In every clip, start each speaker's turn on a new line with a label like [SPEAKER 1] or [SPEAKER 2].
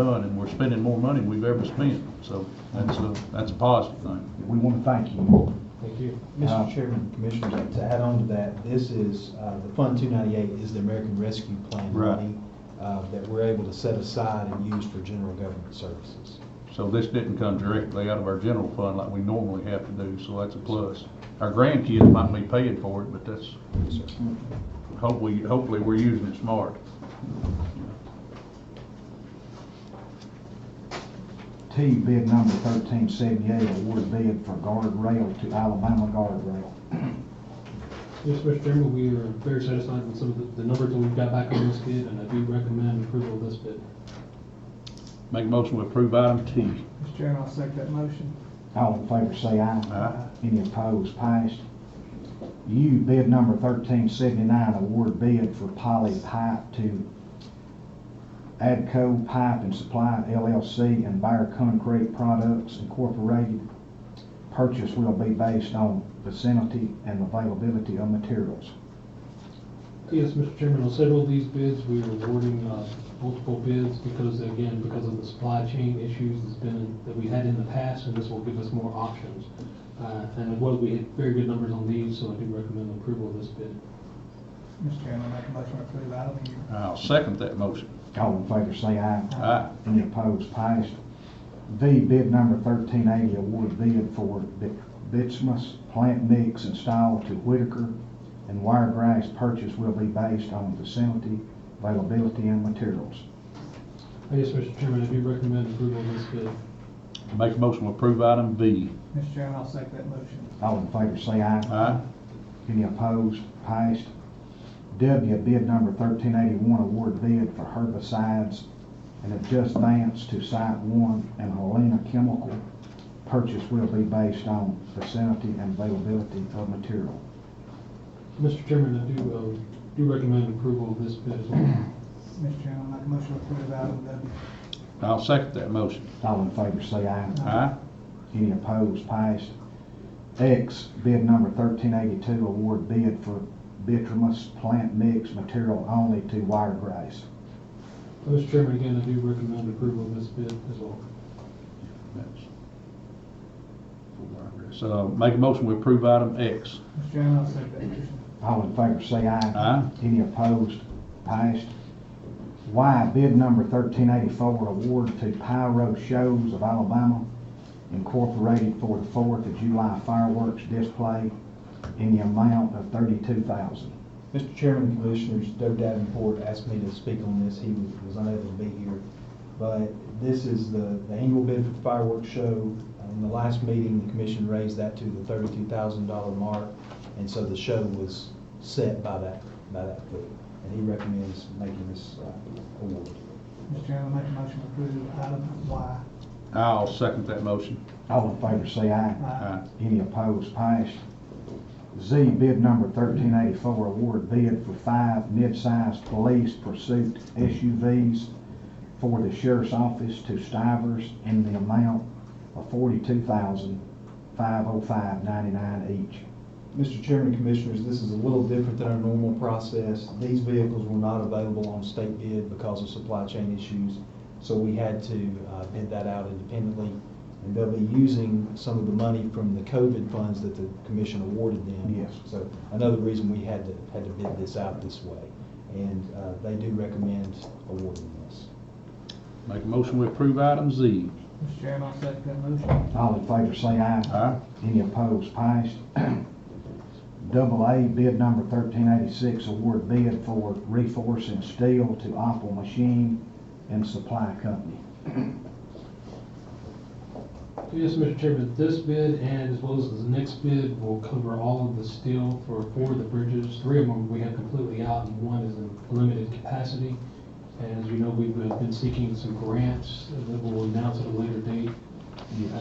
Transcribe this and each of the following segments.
[SPEAKER 1] done, and we're spending more money than we've ever spent, so that's a, that's a positive thing.
[SPEAKER 2] We want to thank you.
[SPEAKER 3] Thank you.
[SPEAKER 2] Uh,
[SPEAKER 4] Mr. Chairman, Commissioners, to add on to that, this is, uh, the Fund 298 is the American Rescue Plan
[SPEAKER 1] Right.
[SPEAKER 4] money uh, that we're able to set aside and use for general government services.
[SPEAKER 1] So this didn't come directly out of our general fund like we normally have to do, so that's a plus. Our grandkids might be paying for it, but that's,
[SPEAKER 4] Yes, sir.
[SPEAKER 1] hopefully, hopefully we're using it smart.
[SPEAKER 2] T, bid number thirteen seventy-eight, award bid for guardrail to Alabama guardrail.
[SPEAKER 3] Yes, Mr. Chairman, we are very satisfied with some of the- the numbers that we've got back on this bid, and I do recommend approval of this bid.
[SPEAKER 1] Make a motion to approve item T.
[SPEAKER 5] Mr. Chairman, I'll second that motion.
[SPEAKER 2] All in favor, say aye.
[SPEAKER 1] Aye.
[SPEAKER 2] Any opposed, passed. U, bid number thirteen seventy-nine, award bid for poly pipe to Adco Pipe and Supply LLC and Bear Concrete Products Incorporated. Purchase will be based on vicinity and availability of materials.
[SPEAKER 3] Yes, Mr. Chairman, on several of these bids, we are awarding uh, multiple bids because, again, because of the supply chain issues that's been, that we had in the past, and this will give us more options. Uh, And as well, we had very good numbers on these, so I do recommend approval of this bid.
[SPEAKER 5] Mr. Chairman, I make a motion to approve item U.
[SPEAKER 1] I'll second that motion.
[SPEAKER 2] All in favor, say aye.
[SPEAKER 1] Aye.
[SPEAKER 2] Any opposed, passed. V, bid number thirteen eighty, award bid for bit- bituminous plant mix installed to Whitaker and Wiregrass purchase will be based on vicinity, availability, and materials.
[SPEAKER 3] Yes, Mr. Chairman, I do recommend approval of this bid.
[SPEAKER 1] Make a motion to approve item V.
[SPEAKER 5] Mr. Chairman, I'll second that motion.
[SPEAKER 2] All in favor, say aye.
[SPEAKER 1] Aye.
[SPEAKER 2] Any opposed, passed. W, bid number thirteen eighty-one, award bid for herbicides and adjust vance to site one and Helena Chemical. Purchase will be based on vicinity and availability of material.
[SPEAKER 3] Mr. Chairman, I do, um, do recommend approval of this bid as well.
[SPEAKER 5] Mr. Chairman, I make a motion to approve item W.
[SPEAKER 1] I'll second that motion.
[SPEAKER 2] All in favor, say aye.
[SPEAKER 1] Aye.
[SPEAKER 2] Any opposed, passed. X, bid number thirteen eighty-two, award bid for bituminous plant mix material only to Wiregrass.
[SPEAKER 3] Mr. Chairman, again, I do recommend approval of this bid as well.
[SPEAKER 1] That's- So Uh, make a motion to approve item X.
[SPEAKER 5] Mr. Chairman, I'll second that motion.
[SPEAKER 2] All in favor, say aye.
[SPEAKER 1] Aye.
[SPEAKER 2] Any opposed, passed. Y, bid number thirteen eighty-four, award to Pyro Shows of Alabama Incorporated for the Fourth of July fireworks display in the amount of thirty-two thousand.
[SPEAKER 4] Mr. Chairman, Commissioners, Doug Davenport asked me to speak on this. He was was unable to be here. But this is the the annual bid for the fireworks show. In the last meeting, the commission raised that to the thirty-two thousand dollar mark, and so the show was set by that, by that fee. And he recommends making this uh, award.
[SPEAKER 5] Mr. Chairman, I make a motion to approve item Y.
[SPEAKER 1] I'll second that motion.
[SPEAKER 2] All in favor, say aye.
[SPEAKER 1] Aye.
[SPEAKER 2] Any opposed, passed. Z, bid number thirteen eighty-four, award bid for five mid-sized police pursuit SUVs for the sheriff's office to Stivers in the amount of forty-two thousand, five oh five ninety-nine each.
[SPEAKER 4] Mr. Chairman, Commissioners, this is a little different than our normal process. These vehicles were not available on state bid because of supply chain issues, so we had to uh, bid that out independently. And they'll be using some of the money from the COVID funds that the commission awarded them.
[SPEAKER 2] Yes.
[SPEAKER 4] So another reason we had to, had to bid this out this way. And uh, they do recommend awarding this.
[SPEAKER 1] Make a motion to approve item Z.
[SPEAKER 5] Mr. Chairman, I'll second that motion.
[SPEAKER 2] All in favor, say aye.
[SPEAKER 1] Aye.
[SPEAKER 2] Any opposed, passed. Double A, bid number thirteen eighty-six, award bid for reforcing steel to Opel Machine and Supply Company.
[SPEAKER 3] Yes, Mr. Chairman, this bid and as well as the next bid will cover all of the steel for four of the bridges. Three of them we have completely out and one is in limited capacity. And as you know, we've been seeking some grants that we'll announce at a later date.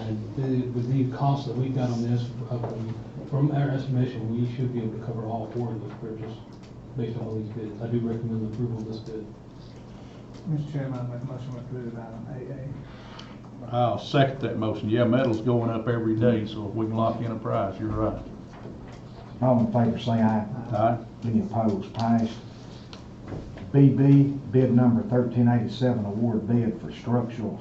[SPEAKER 3] And the- with the cost that we've got on this, uh, from our estimation, we should be able to cover all four of those bridges based on all these bids. I do recommend the approval of this bid.
[SPEAKER 5] Mr. Chairman, I make a motion to approve item AA.
[SPEAKER 1] I'll second that motion. Yeah, metal's going up every day, so if we can lock in a price, you're right.
[SPEAKER 2] All in favor, say aye.
[SPEAKER 1] Aye.
[SPEAKER 2] Any opposed, passed. BB, bid number 1387, award bid for structural